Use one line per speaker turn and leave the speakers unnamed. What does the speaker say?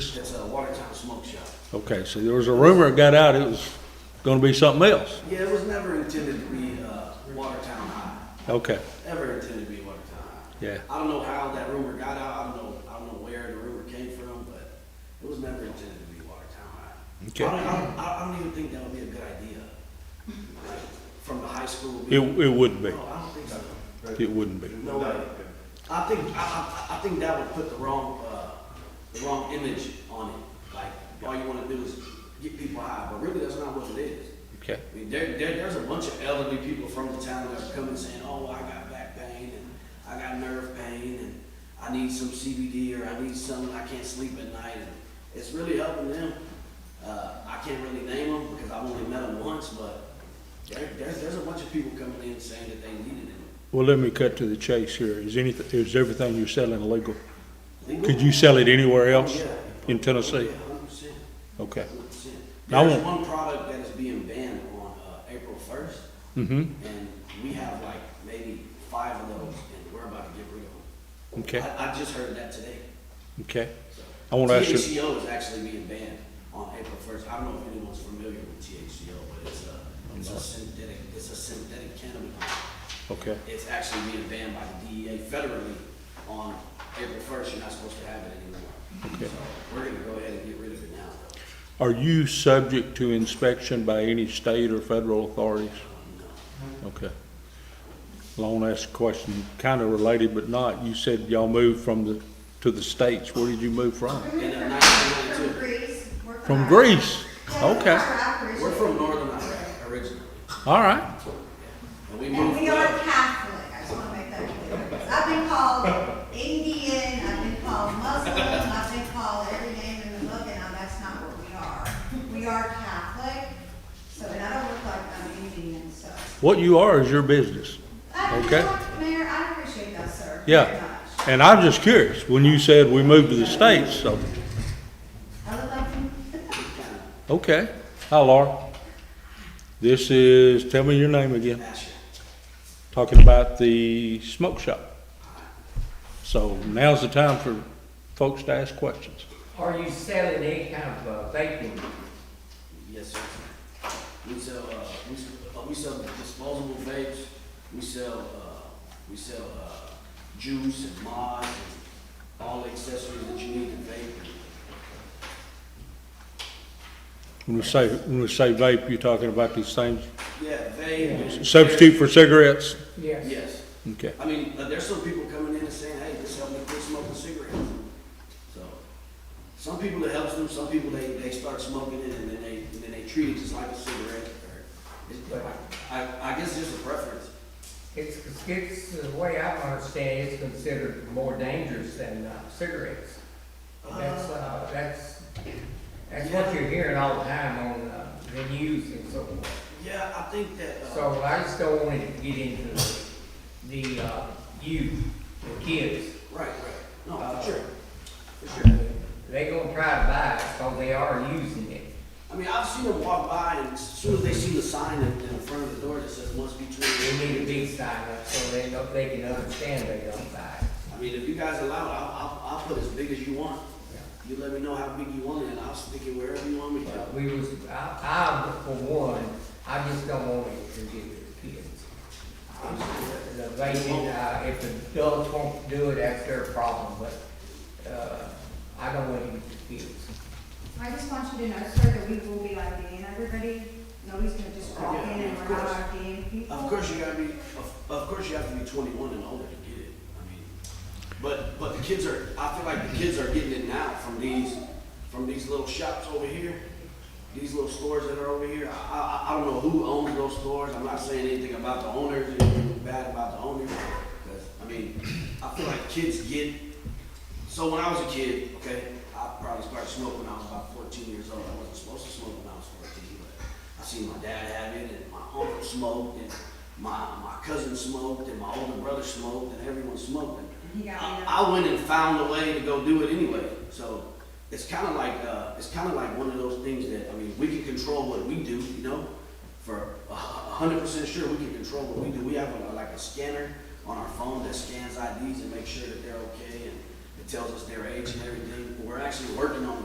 That's a Watertown Smoke Shop.
Okay, so there was a rumor that got out, it was gonna be something else.
Yeah, it was never intended to be uh, Watertown High.
Okay,
Ever intended to be Watertown High.
yeah,
I don't know how that rumor got out. I don't know. I don't know where the rumor came from, but it was never intended to be Watertown High.
Okay.
I don't, I don't, I don't even think that would be a good idea. Like, from the high school.
it, it wouldn't be,
No, I don't think so.
it wouldn't be.
No way. I think, I, I, I think that would put the wrong, uh, the wrong image on it. Like, all you wanna do is get people high, but really that's not what it is.
Okay,
I mean, there, there, there's a bunch of elderly people from the town that are coming saying, oh, I got back pain and I got nerve pain and I need some CBD or I need something, I can't sleep at night. And It's really helping them. Uh, I can't really name them because I've only met them once, but there, there's, there's a bunch of people coming in saying that they needed it.
well, let me cut to the chase here. Is anything, is everything you're selling illegal?
Legal?
Could you sell it anywhere
Oh,
else
yeah.
in Tennessee?
Yeah, 100%.
Okay,
100%.
Now I
There's one product that is being banned on uh, April 1st,
mm-hmm,
and we have like maybe five of those, and we're about to get rid of
okay,
them. I, I just heard that today.
okay.
so.
I wanna ask you-
THCO is actually being banned on April 1st. I don't know if anyone's familiar with THCO, but it's a, it's a synthetic, it's a synthetic cannabis.
Okay,
It's actually being banned by the DEA federally on April 1st. You're not supposed to have it anymore.
Okay.
So we're going to go ahead and get rid of it now, though.
are you subject to inspection by any state or federal authorities?
Um,
Okay. Long asked a question, kinda related but not. You said y'all moved from the, to the states. Where did you move from?
In uh, 1992.
Greece. We're
From
Iraq.
Greece?
Yeah, we're
Okay,
from Iraq originally.
We're from northern Iraq originally,
all right.
and we
And
moved.
we are
up.
Catholic, I just wanna make that clear. 'Cause I've been called Indian, I've been called Muslim, I've been called every name in the book, and I'm- that's not what we are. We are Catholic, so, and I don't look like I'm Indian, so.
What you are is your business.
I- you know
Okay.
what, Mayor, I appreciate that, sir. very
Yeah.
much.
And I'm just curious, when you said we moved to the states, so,
I look like,
okay. Hi, Laura. This is, tell me your name again,
Asher.
talking about the smoke shop. So now's the time for folks to ask questions.
Are you selling any kind of uh, vaping?
Yes, sir. We sell, uh, we, s- uh, we sell disposable vapes, we sell, uh, we sell, uh, juice and mods and all the accessories that you need to vape.
When we say, when we say vape, you're talking about these things,
Yeah, vape. and-
substitute for cigarettes?
Yes.
Yes.
Okay,
I mean, uh, there's some people coming in and saying, hey, this helped me quit smoking cigarettes. So, some people it helps them, some people they, they start smoking it and then they, and then they treat it just like a cigarette. or- it's- but I, I guess it's just a preference.
It's, it's, the way I understand it, it's considered more dangerous than uh, cigarettes. That's, uh, that's, that's what you're hearing all the time on uh, the news and so forth.
Yeah, I think that, uh,
So I just don't want it to get into the, the uh, youth, the kids.
right, right. No,
Uh,
for sure, for sure.
They gonna try to buy it, so they are using it.
I mean, I've seen them walk by and as soon as they see the sign in, in front of the door that says must be
They
treated.
need a big sign up so they know, they can understand they don't buy it.
I mean, if you guys allow it, I'll, I'll, I'll put as big as you want.
Yeah.
You let me know how big you want it and I'll stick it wherever you want me to.
We was, I, I, for one, I just don't want it to get to the kids. I'm just- The vaping, uh, if the adults want to do it, that's their problem, but, uh, I don't want it to get to the kids.
I just want you to know, sir, that we will be like being everybody. Nobody's gonna just walk in and
Yeah, of
we're not
course.
like being people.
Of course, you gotta be, of, of course, you have to be twenty-one and older to get it, I mean, but, but the kids are, I feel like the kids are getting it now from these, from these little shops over here, these little stores that are over here, I, I, I don't know who owns those stores, I'm not saying anything about the owners, anything bad about the owners, because, I mean, I feel like kids get, so when I was a kid, okay, I probably started smoking when I was about fourteen years old, I wasn't supposed to smoke when I was fourteen, but I seen my dad have it, and my uncle smoked, and my, my cousin smoked, and my older brother smoked, and everyone smoked. and
He got me
I,
that.
I went and found a way to go do it anyway. So it's kind of like uh, it's kind of like one of those things that I mean, we can control what we do, you know. For a hundred percent sure, we can control what we do. We have a, like a scanner on our phone that scans IDs and makes sure that they're okay, and it tells us their age and everything. We're actually working on